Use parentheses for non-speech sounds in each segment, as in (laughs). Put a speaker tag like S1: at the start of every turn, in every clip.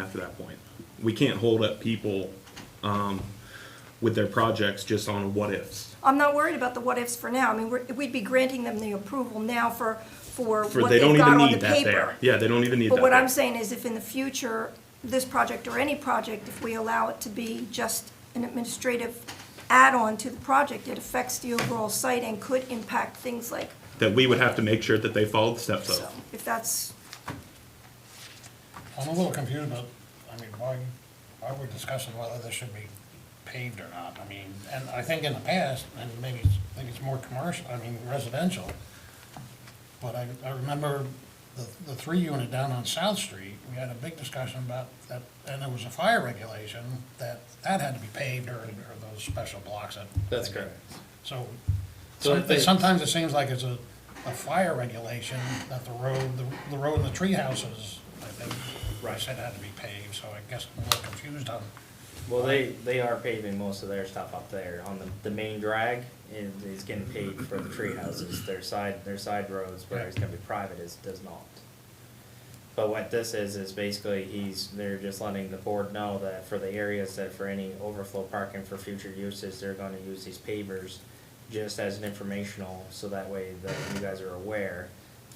S1: after that point. We can't hold up people um, with their projects just on what ifs.
S2: I'm not worried about the what-ifs for now. I mean, we're- we'd be granting them the approval now for, for
S1: For
S2: what
S1: they
S2: they've
S1: don't
S2: got
S1: even
S2: on the
S1: need that
S2: paper.
S1: there. Yeah, they don't even need that.
S2: But what I'm
S1: there.
S2: saying is if in the future, this project or any project, if we allow it to be just an administrative add-on to the project, it affects the overall site and could impact things like,
S1: That we would have to make sure that they follow the steps
S2: so
S1: of.
S2: if that's,
S3: I'm a little confused, about I mean, why, why we're discussing whether this should be paved or not, I mean, and I think in the past, and maybe, it's- I think it's more commercial, I mean, residential, but I, I remember the, the three unit down on South Street, we had a big discussion about that, and there was a fire regulation, that, that had to be paved, or, or those special blocks that.
S4: That's correct.
S3: So,
S4: So I think-
S3: sometimes it seems like it's a, a fire regulation that the road, the, the road and the tree houses, I think,
S4: Right.
S3: said had to be paved, so I guess I'm a little confused on,
S4: Well, they, they are paving most of their stuff up there on the, the main drag is, is getting paved for the tree houses, their side, their side roads, where it's gonna be private is, does not. But what this is, is basically he's, they're just letting the board know that for the areas that for any overflow parking for future uses, they're gonna use these pavers just as an informational, so that way that you guys are aware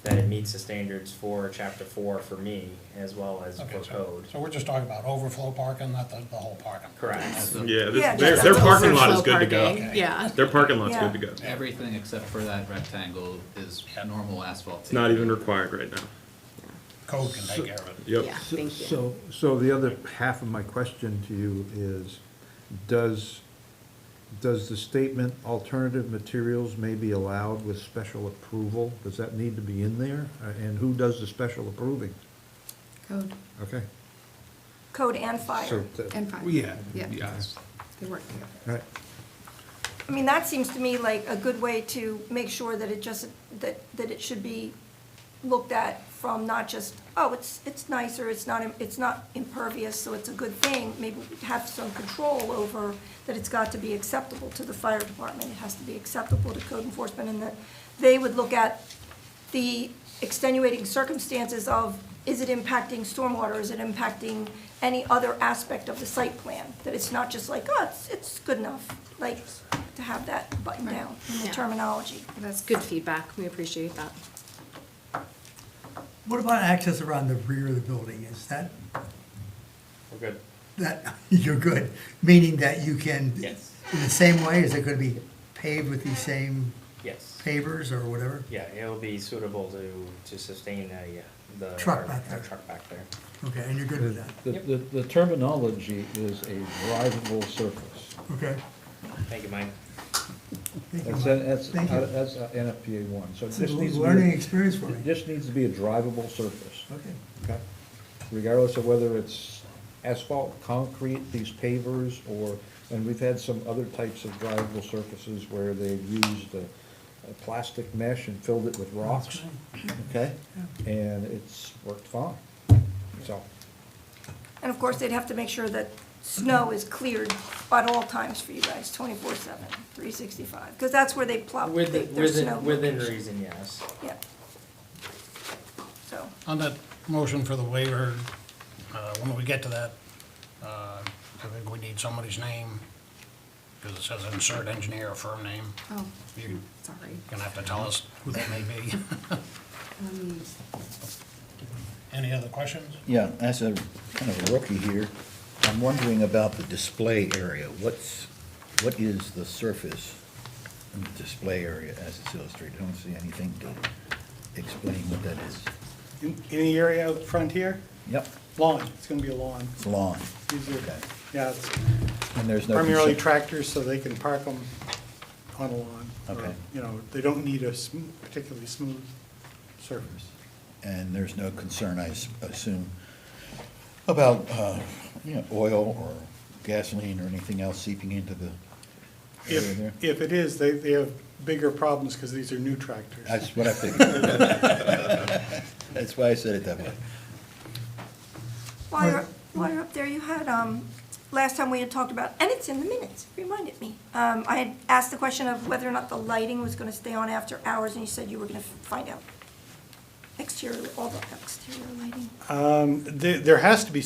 S4: that it meets the standards for chapter four for me, as well as
S3: okay,
S4: for
S3: so,
S4: code.
S3: so we're just talking about overflow parking, not the, the whole parking.
S4: Correct.
S1: Yeah,
S2: Yeah,
S1: this- their, their
S2: just-
S1: parking lot is good to go.
S5: Parking, Yeah,
S1: Their parking lot's good to go.
S6: Everything except for that rectangle is normal asphalt.
S1: It's not even required right now.
S3: Code can take care of it.
S1: Yep.
S5: yeah,
S7: So-
S5: thank you.
S7: So, so the other half of my question to you is, does, does the statement alternative materials may be allowed with special approval? Does that need to be in there? Uh, And who does the special approving?
S5: Code
S7: Okay.
S2: code and fire.
S7: so that-
S5: and fire.
S8: Yeah,
S5: Yeah.
S8: yes.
S5: They work together.
S7: Right,
S2: I mean, that seems to me like a good way to make sure that it just, that, that it should be looked at from not just, oh, it's, it's nicer, it's not, im- it's not impervious, so it's a good thing. Maybe we have some control over that it's got to be acceptable to the fire department. It has to be acceptable to code enforcement and that they would look at the extenuating circumstances of, is it impacting stormwater, is it impacting any other aspect of the site plan? That it's not just like, oh, it's, it's good enough, like, to have that buttoned down in the
S5: Yeah.
S2: terminology.
S5: That's good feedback, we appreciate that.
S8: What about access around the rear of the building? Is that,
S4: We're good.
S8: that, (laughs) you're good, meaning that you can?
S4: Yes.
S8: In the same way, is it gonna be paved with these same
S4: Yes.
S8: pavers or whatever?
S4: Yeah, it'll be suitable to, to sustain a, uh, the.
S8: Truck
S4: our-
S8: back
S4: our
S8: there.
S4: Truck back there.
S8: Okay, and you're good with that,
S9: The, the the terminology is a drivable surface.
S8: okay?
S4: Thank you, Mike.
S8: Thank you,
S9: That's,
S8: Mike.
S9: that's,
S8: Thank you.
S9: that's uh, NFPA one, so
S8: It's
S9: this
S8: a
S9: needs to be.
S8: learning experience for me.
S9: This needs to be a drivable surface,
S8: Okay,
S9: okay? Regardless of whether it's asphalt, concrete, these pavers, or, and we've had some other types of drivable surfaces where they've used a, a plastic mesh and filled it with rocks, okay? And it's worked fine, so.
S2: And of course, they'd have to make sure that snow is cleared at all times for you guys, 24/7, 365, because that's where they plop their their
S4: Within,
S2: snow.
S4: within, within
S2: location.
S4: reason, yes.
S2: Yeah. So,
S3: On that motion for the waiver, uh, when we get to that, uh, I think we need somebody's name, because it says insert engineer or firm name.
S5: Oh,
S3: You're
S5: sorry.
S3: gonna have to tell us who that may be.
S5: Um,
S3: (laughs) Any other questions?
S10: Yeah, as a kind of a rookie here, I'm wondering about the display area. What's, what is the surface in the display area as it's illustrated? I don't see anything to explain what that is.
S11: In in the area out front here,
S10: Yep,
S11: lawn, it's gonna be a lawn.
S10: it's lawn.
S11: These are-
S10: Okay.
S11: Yeah, it's
S10: And there's no.
S11: primarily
S10: conce-
S11: tractors, so they can park them on a lawn. or,
S10: Okay.
S11: You know, they don't need a sm- particularly smooth surface.
S10: And there's no concern, I s- assume, about, uh, you know, oil or gasoline or anything else seeping into the area there?
S11: If, if it is, they, they have bigger problems because these are new tractors.
S10: That's what I figured.
S11: (laughs)
S10: That's why I said it that way.
S2: while you're, while you're up there, you had, um, last time we had talked about, and it's in the minutes, it reminded me. Um, I had asked the question of whether or not the lighting was gonna stay on after hours, and you said you were gonna find out. Exterior, all the exterior lighting.
S11: Um, There, there has to be